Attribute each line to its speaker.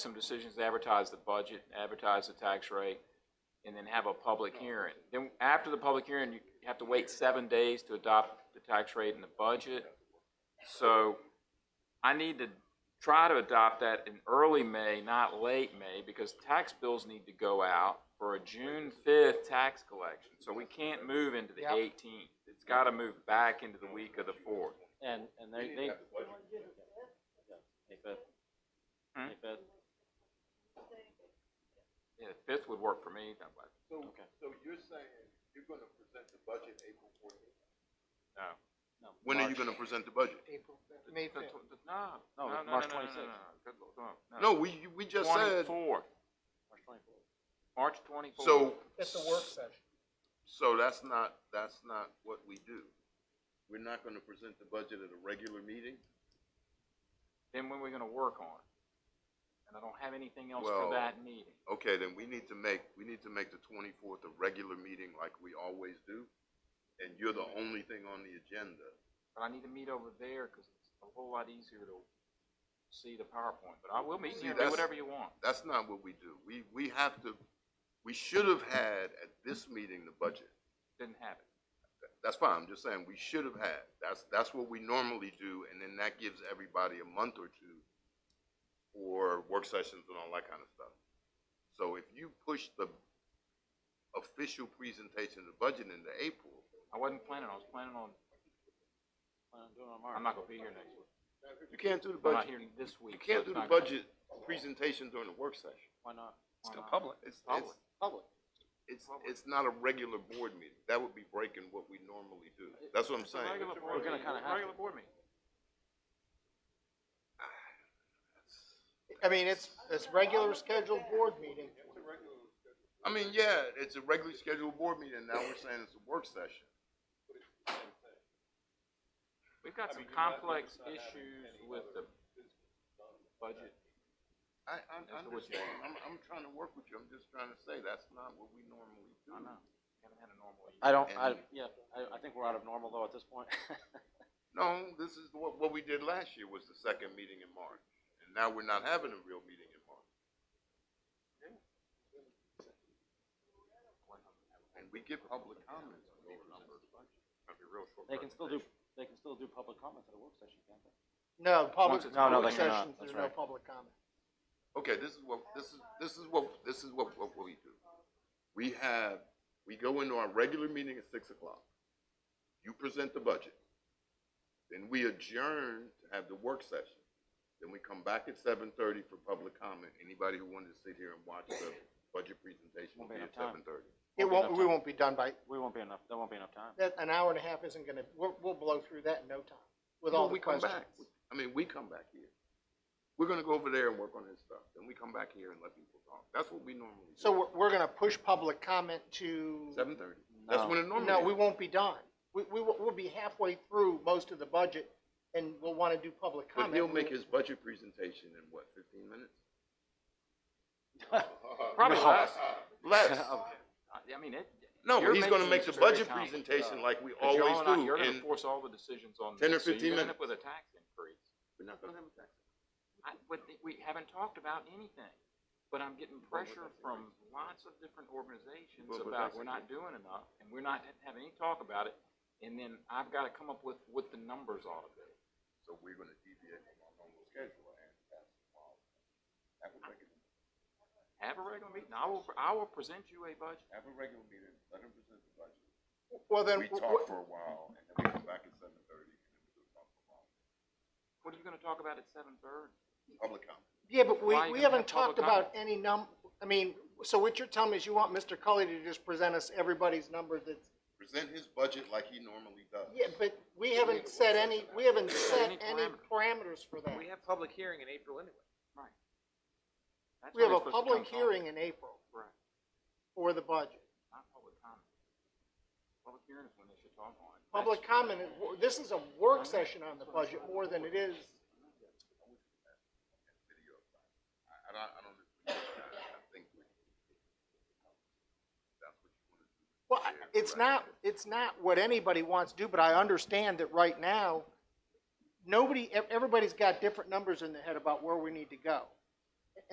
Speaker 1: some decisions, to advertise the budget, advertise the tax rate, and then have a public hearing. Then after the public hearing, you have to wait seven days to adopt the tax rate and the budget. So I need to try to adopt that in early May, not late May, because tax bills need to go out for a June fifth tax collection. So we can't move into the
Speaker 2: Yep.
Speaker 1: eighteenth. It's gotta move back into the week of the fourth.
Speaker 3: And, and they, they. May fifth.
Speaker 1: Hmm?
Speaker 3: May fifth,
Speaker 1: Yeah, the fifth would work for me. That way.
Speaker 4: So,
Speaker 3: Okay.
Speaker 4: so you're saying you're gonna present the budget April fourteenth?
Speaker 1: No.
Speaker 3: no.
Speaker 4: When are you
Speaker 3: March.
Speaker 4: gonna present the budget?
Speaker 2: April, May
Speaker 1: The
Speaker 2: fifth.
Speaker 1: tw- the- No, no, no,
Speaker 3: No,
Speaker 1: no, no, no,
Speaker 3: March
Speaker 1: no,
Speaker 3: 26th.
Speaker 1: no, good lord, no,
Speaker 2: Uh,
Speaker 1: no.
Speaker 4: No, we, you- we just said,
Speaker 1: 24th,
Speaker 3: March twenty-fourth.
Speaker 1: March twenty-fourth.
Speaker 4: so,
Speaker 2: That's a work session.
Speaker 4: so that's not, that's not what we do. We're not gonna present the budget at a regular meeting?
Speaker 1: Then when are we gonna work on it? And I don't have anything else
Speaker 4: Well-
Speaker 1: for that meeting.
Speaker 4: Okay, then we need to make, we need to make the twenty-fourth a regular meeting like we always do, and you're the only thing on the agenda.
Speaker 1: But I need to meet over there, cause it's a whole lot easier to see the PowerPoint, but I will meet
Speaker 4: See,
Speaker 1: you, do
Speaker 4: that's-
Speaker 1: whatever you want.
Speaker 4: That's not what we do. We, we have to, we should have had at this meeting the budget.
Speaker 1: Didn't have it.
Speaker 4: That's fine, I'm just saying, we should have had, that's, that's what we normally do, and then that gives everybody a month or two for work sessions and all that kind of stuff. So if you push the official presentation of the budget into April,
Speaker 1: I wasn't planning, I was planning on,
Speaker 3: Plan on doing it on March.
Speaker 1: I'm not gonna be here next week.
Speaker 4: you can't do the
Speaker 1: I'm not
Speaker 4: budget,
Speaker 1: here this week.
Speaker 4: you
Speaker 1: so
Speaker 4: can't
Speaker 1: it's
Speaker 4: do the
Speaker 1: not gonna-
Speaker 4: budget presentation during the work session.
Speaker 3: Why
Speaker 1: Why
Speaker 3: not?
Speaker 1: not?
Speaker 4: It's, it's,
Speaker 1: Public.
Speaker 2: Public.
Speaker 4: it's, it's not a regular board meeting, that would be breaking what we normally do, that's what I'm
Speaker 1: It's a
Speaker 4: saying.
Speaker 1: regular
Speaker 3: We're
Speaker 1: board
Speaker 3: gonna
Speaker 1: meeting,
Speaker 3: kinda
Speaker 1: it's a
Speaker 3: have
Speaker 1: regular
Speaker 3: to.
Speaker 1: board meeting.
Speaker 2: I mean, it's, it's regular scheduled board meeting.
Speaker 4: I mean, yeah, it's a regularly scheduled board meeting, now we're saying it's a work session.
Speaker 1: We've got some complex issues with the budget
Speaker 4: I, I
Speaker 1: That's what we're
Speaker 4: understand, I'm, I'm trying to work with you, I'm just trying to say, that's not what we normally do.
Speaker 1: I know. We haven't had a normal year.
Speaker 3: I don't, I,
Speaker 4: And-
Speaker 3: yeah, I, I think we're out of normal though at this point.
Speaker 4: No, this is what, what we did last year was the second meeting in March, and now we're not having a real meeting in March. And we get public comments on these numbers, that'd be real short.
Speaker 3: They can still do, they can still do public comments at a work session, can't they?
Speaker 2: No,
Speaker 1: Once
Speaker 2: public,
Speaker 1: it's-
Speaker 3: No, no,
Speaker 2: public
Speaker 3: they cannot.
Speaker 2: sessions,
Speaker 3: That's
Speaker 2: there's no
Speaker 3: right.
Speaker 2: public comment.
Speaker 4: Okay, this is what, this is, this is what, this is what, what we do. We have, we go into our regular meeting at six o'clock. You present the budget. Then we adjourn to have the work session. Then we come back at seven thirty for public comment. Anybody who wanted to sit here and watch the budget presentation will
Speaker 3: Won't be
Speaker 4: be at
Speaker 3: enough time.
Speaker 4: seven thirty.
Speaker 2: It
Speaker 3: be
Speaker 2: won't,
Speaker 3: enough
Speaker 2: we
Speaker 3: time.
Speaker 2: won't be done by,
Speaker 3: We won't be enough, there won't be enough time.
Speaker 2: that, an hour and a half isn't gonna, we'll, we'll blow through that in no time with all
Speaker 4: Well,
Speaker 2: the
Speaker 4: we come
Speaker 2: questions.
Speaker 4: back. I mean, we come back here. We're gonna go over there and work on this stuff. Then we come back here and let people talk. That's what we normally do.
Speaker 2: So we're, we're gonna push public comment to,
Speaker 4: Seven thirty. That's
Speaker 3: No.
Speaker 4: when it normally.
Speaker 2: no,
Speaker 4: is.
Speaker 2: we won't be done. We, we, will- we'll be halfway through most of the budget and we'll wanna do public comment.
Speaker 4: But he'll make his budget presentation in what, fifteen minutes?
Speaker 1: Probably
Speaker 3: No.
Speaker 1: less.
Speaker 4: Less.
Speaker 1: I I mean, it.
Speaker 4: No,
Speaker 1: you're
Speaker 4: he's gonna
Speaker 1: making
Speaker 4: make the
Speaker 1: this
Speaker 4: budget
Speaker 1: very complicated.
Speaker 4: presentation like we
Speaker 1: 'Cause y'all
Speaker 4: always
Speaker 1: and I-
Speaker 4: do,
Speaker 1: You're gonna
Speaker 4: and
Speaker 1: force all the decisions on.
Speaker 4: 10 or
Speaker 1: this, so
Speaker 4: 15
Speaker 1: You're gonna end up with
Speaker 4: minutes.
Speaker 1: a tax increase.
Speaker 4: we're not gonna have a tax.
Speaker 1: I, but th- we haven't talked about anything, but I'm getting pressure from lots of different organizations
Speaker 4: Well, but
Speaker 1: about
Speaker 4: that's
Speaker 1: we're
Speaker 4: a-
Speaker 1: not doing enough, and we're not having any talk about it, and then I've gotta come up with what the numbers ought to be.
Speaker 4: So we're gonna deviate from our normal schedule and pass the policy. Have a regular,
Speaker 1: Have a regular meeting, I will, I will present you a budget.
Speaker 4: have a regular meeting, let him present the budget.
Speaker 2: Well, then,
Speaker 4: We talk for a while, and then we come back at seven thirty, and then we do talk for a while.
Speaker 1: What are you gonna talk about at seven thirty?
Speaker 4: Public comment.
Speaker 2: Yeah, but we,
Speaker 1: Why you
Speaker 2: we
Speaker 1: gonna
Speaker 2: haven't
Speaker 1: have public
Speaker 2: talked about any num, I mean, so what you're telling me is you want Mr. Cully to just present us everybody's number that's,
Speaker 4: Present his budget like he normally does.
Speaker 2: yeah, but we haven't set any, we haven't set any
Speaker 1: parameter.
Speaker 2: parameters for that.
Speaker 5: We have public hearing in April anyway.
Speaker 1: Right. That's
Speaker 2: We have
Speaker 1: when
Speaker 2: a
Speaker 1: it's supposed to come
Speaker 2: public
Speaker 1: talk.
Speaker 2: hearing in April
Speaker 1: Right,
Speaker 2: for the budget.
Speaker 1: not public comment. Public hearing is when they should talk on it.
Speaker 2: Public comment, is- this is a work session on the budget more than it is,
Speaker 4: I, I don't, I don't, I think we. um, That's what you wanna do.
Speaker 2: well, I- it's not, it's not what anybody wants to do, but I understand that e, right now, nobody, ev- everybody's got different numbers in their head about where we need to go.